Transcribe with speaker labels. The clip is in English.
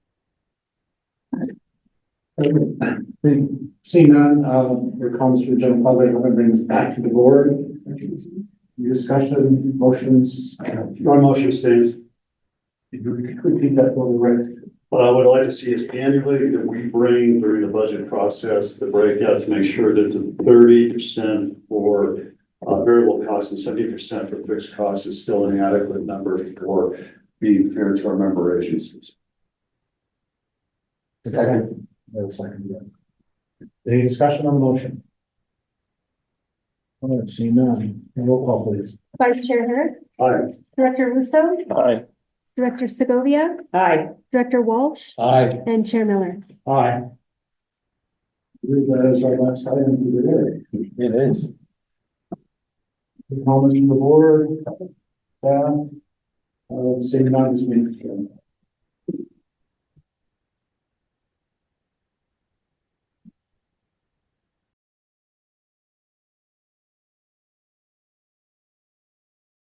Speaker 1: Seeing none, um, your comments for general public, I'm gonna bring this back to the board. Your Discussion, motions, your motion stays. If you could repeat that for the record.
Speaker 2: What I would like to see is annually that we bring during the budget process, the breakout to make sure that the thirty percent for uh, variable costs and seventy percent for fixed costs is still an adequate number for being fair to our member agencies.
Speaker 1: Second. No second. yeah. Any discussion on the motion? All right, seeing none, roll call please.
Speaker 3: Vice Chair Hurd,
Speaker 2: Aye.
Speaker 3: Director Russo,
Speaker 4: Aye.
Speaker 3: Director Segovia,
Speaker 5: Aye.
Speaker 3: Director Walsh,
Speaker 1: Aye.
Speaker 3: and Chair Miller.
Speaker 1: Aye. That is our last item for the
Speaker 4: It is.
Speaker 1: day. Comments from the board? Yeah. Uh, seeing uh, none, this meeting. is adjourned.